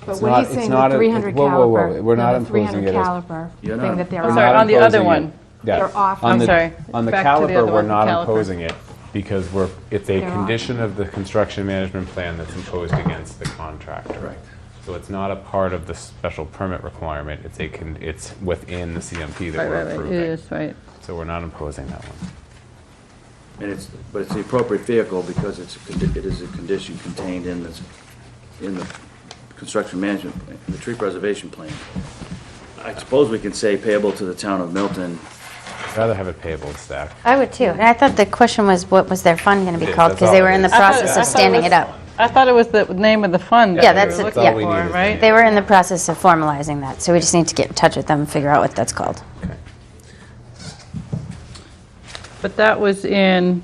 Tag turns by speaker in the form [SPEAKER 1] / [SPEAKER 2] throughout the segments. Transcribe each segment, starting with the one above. [SPEAKER 1] But
[SPEAKER 2] It's
[SPEAKER 1] when
[SPEAKER 2] not-
[SPEAKER 1] he's
[SPEAKER 2] it's
[SPEAKER 1] saying the
[SPEAKER 2] not a-
[SPEAKER 1] 300
[SPEAKER 2] whoa, whoa, whoa,
[SPEAKER 1] caliber,
[SPEAKER 2] we're not
[SPEAKER 1] no, the
[SPEAKER 2] imposing
[SPEAKER 1] 300
[SPEAKER 2] it as-
[SPEAKER 1] caliber
[SPEAKER 3] You're
[SPEAKER 1] thing
[SPEAKER 3] not-
[SPEAKER 1] that they're
[SPEAKER 2] We're
[SPEAKER 1] offering.
[SPEAKER 2] not
[SPEAKER 4] sorry, on the other
[SPEAKER 2] imposing
[SPEAKER 4] one.
[SPEAKER 2] it. Yeah.
[SPEAKER 1] They're off-
[SPEAKER 2] On
[SPEAKER 1] I'm
[SPEAKER 2] the-
[SPEAKER 4] sorry.
[SPEAKER 2] On the
[SPEAKER 4] Back to the other
[SPEAKER 2] caliper, we're
[SPEAKER 4] one, the
[SPEAKER 2] not
[SPEAKER 4] caliper.
[SPEAKER 2] imposing it because we're, it's a
[SPEAKER 1] They're off.
[SPEAKER 2] condition of the construction management plan that's imposed against the contractor.
[SPEAKER 3] Correct.
[SPEAKER 2] So it's not a part of the special permit requirement, it's a, con- it's within the CMP that
[SPEAKER 4] Right,
[SPEAKER 2] we're
[SPEAKER 4] right, right, it
[SPEAKER 2] approving.
[SPEAKER 4] is, right.
[SPEAKER 2] So we're not imposing that one.
[SPEAKER 3] And it's, but it's the appropriate vehicle because it's, a condi- it is a condition contained in this, in the construction management, plan, the tree preservation plan. I suppose we can say payable to the town of Milton.
[SPEAKER 2] I'd rather have it payable stack.
[SPEAKER 5] I would too. And I thought the question was, what was their fund going to be
[SPEAKER 2] Yeah,
[SPEAKER 5] called?
[SPEAKER 2] that's
[SPEAKER 5] Because they
[SPEAKER 2] all
[SPEAKER 5] were
[SPEAKER 2] it
[SPEAKER 5] in the
[SPEAKER 2] is. I
[SPEAKER 4] thought-
[SPEAKER 5] process
[SPEAKER 4] I thought
[SPEAKER 5] of
[SPEAKER 4] it
[SPEAKER 5] standing
[SPEAKER 4] was-
[SPEAKER 5] it up.
[SPEAKER 4] I thought it was the name of the fund. that
[SPEAKER 5] Yeah,
[SPEAKER 4] we
[SPEAKER 5] that's
[SPEAKER 4] were
[SPEAKER 5] it,
[SPEAKER 4] looking
[SPEAKER 5] yeah.
[SPEAKER 2] That's all we need
[SPEAKER 4] for,
[SPEAKER 2] is
[SPEAKER 4] right?
[SPEAKER 2] the
[SPEAKER 5] They were in the process of formalizing that, so we just need to get in touch with them, and figure out what that's called.
[SPEAKER 4] But that was in,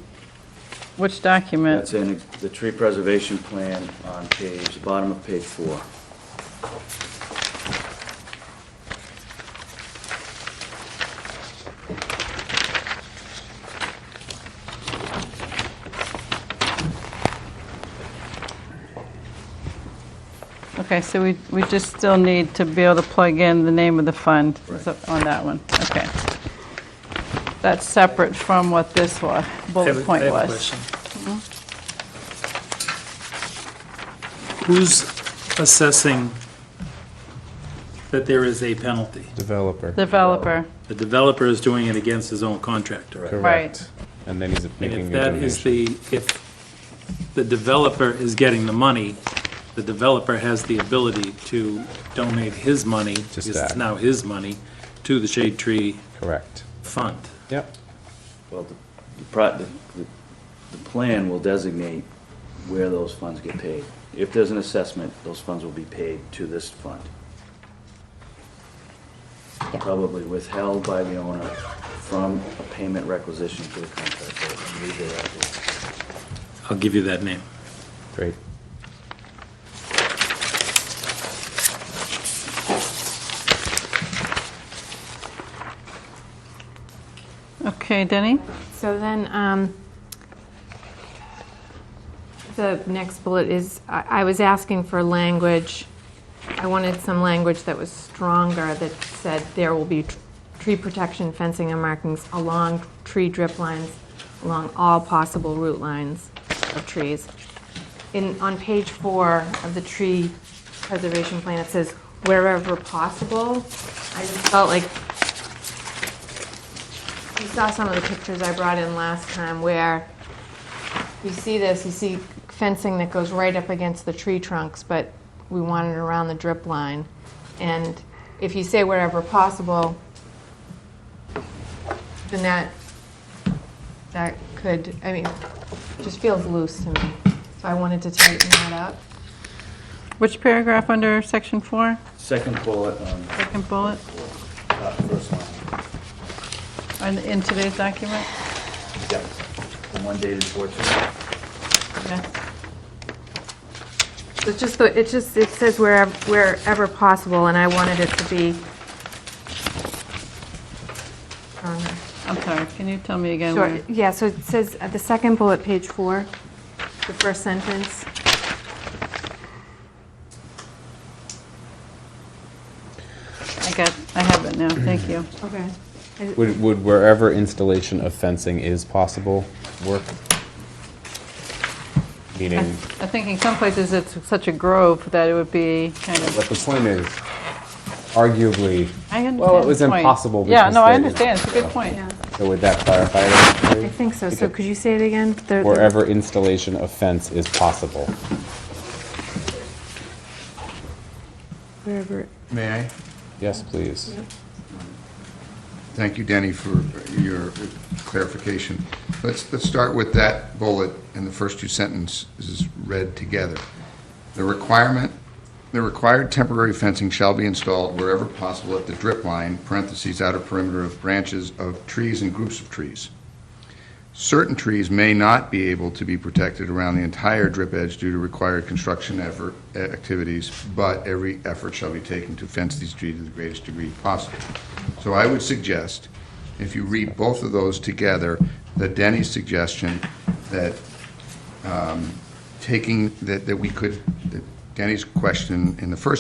[SPEAKER 4] which document?
[SPEAKER 3] That's in the tree preservation plan on page, the bottom of page four.
[SPEAKER 4] Okay, so we, we just still need to be able to plug in the name of the fund so- on that one, okay. That's separate from what this wa- bullet point
[SPEAKER 6] I have a
[SPEAKER 4] was.
[SPEAKER 6] question. Mm-hmm. Who's assessing that there is a penalty?
[SPEAKER 2] Developer.
[SPEAKER 4] Developer,
[SPEAKER 6] The developer is doing it against his own contractor.
[SPEAKER 2] Correct. And then he's
[SPEAKER 6] And if
[SPEAKER 2] making a
[SPEAKER 6] that is
[SPEAKER 2] donation.
[SPEAKER 6] the, if the developer is getting the money, the developer has the ability to donate his money, because it's
[SPEAKER 2] that.
[SPEAKER 6] now his money, to the Shade Tree
[SPEAKER 2] Correct.
[SPEAKER 6] Fund.
[SPEAKER 2] Yep.
[SPEAKER 3] Well, the, the pro- the, the- the plan will designate where those funds get paid. If there's an assessment, those funds will be paid to this fund. Probably withheld by the owner from a payment requisition to the contractor. Leave it at that.
[SPEAKER 6] I'll give you that name.
[SPEAKER 2] Great.
[SPEAKER 4] okay, Denny?
[SPEAKER 1] So then, um, the next bullet is, I I was asking for language, I wanted some language that was stronger, that said there will be tr- tree protection, fencing and markings along tree drip lines, along all possible root lines of trees. In, on page four of the tree preservation plan, it says wherever possible. I just felt like you saw some of the pictures I brought in last time where you see this, you see fencing that goes right up against the tree trunks, but we want it around the drip line. And if you say wherever possible, then that, that could, I mean, just feels loose to me. So I wanted to tighten that up.
[SPEAKER 4] Which paragraph under section four?
[SPEAKER 3] Second bullet on
[SPEAKER 4] Second bullet,
[SPEAKER 3] top first line.
[SPEAKER 4] on- in today's document?
[SPEAKER 3] Yep. The one dated fourteen.
[SPEAKER 4] Yeah.
[SPEAKER 1] It's just, the- it just, it says wherever, wherever possible, and I wanted it to be stronger.
[SPEAKER 4] I'm sorry, can you tell me again?
[SPEAKER 1] Sure,
[SPEAKER 4] where-
[SPEAKER 1] yeah, so it says, at the second bullet, page four, the first sentence.
[SPEAKER 4] I got, I have it now, thank you.
[SPEAKER 1] Okay.
[SPEAKER 2] Would, would wherever installation of fencing is possible work? Meaning,
[SPEAKER 4] I think in some places it's such a grove that it would be kind of,
[SPEAKER 2] what the point is, arguably,
[SPEAKER 4] I understand
[SPEAKER 2] well, it was
[SPEAKER 4] the point.
[SPEAKER 2] impossible.
[SPEAKER 4] Yeah,
[SPEAKER 2] because
[SPEAKER 4] no, I
[SPEAKER 2] they-
[SPEAKER 4] understand, it's a good point.
[SPEAKER 2] So would that clarify it? actually?
[SPEAKER 1] I think so, so could you say it again? The- the-
[SPEAKER 2] Wherever installation of fence is possible.
[SPEAKER 1] Wherever,
[SPEAKER 7] May I?
[SPEAKER 2] Yes, please.
[SPEAKER 7] Thank you, Denny, for your clarification. Let's, let's start with that bullet, and the first two sentences read together. The requirement, the required temporary fencing shall be installed wherever possible at the drip line, parentheses, outer perimeter of branches of trees and groups of trees. Certain trees may not be able to be protected around the entire drip edge due to required construction effort, activities, but every effort shall be taken to fence these trees to the greatest degree possible. So I would suggest, if you read both of those together, that Denny's suggestion that um, taking, that that we could, that Denny's question in the first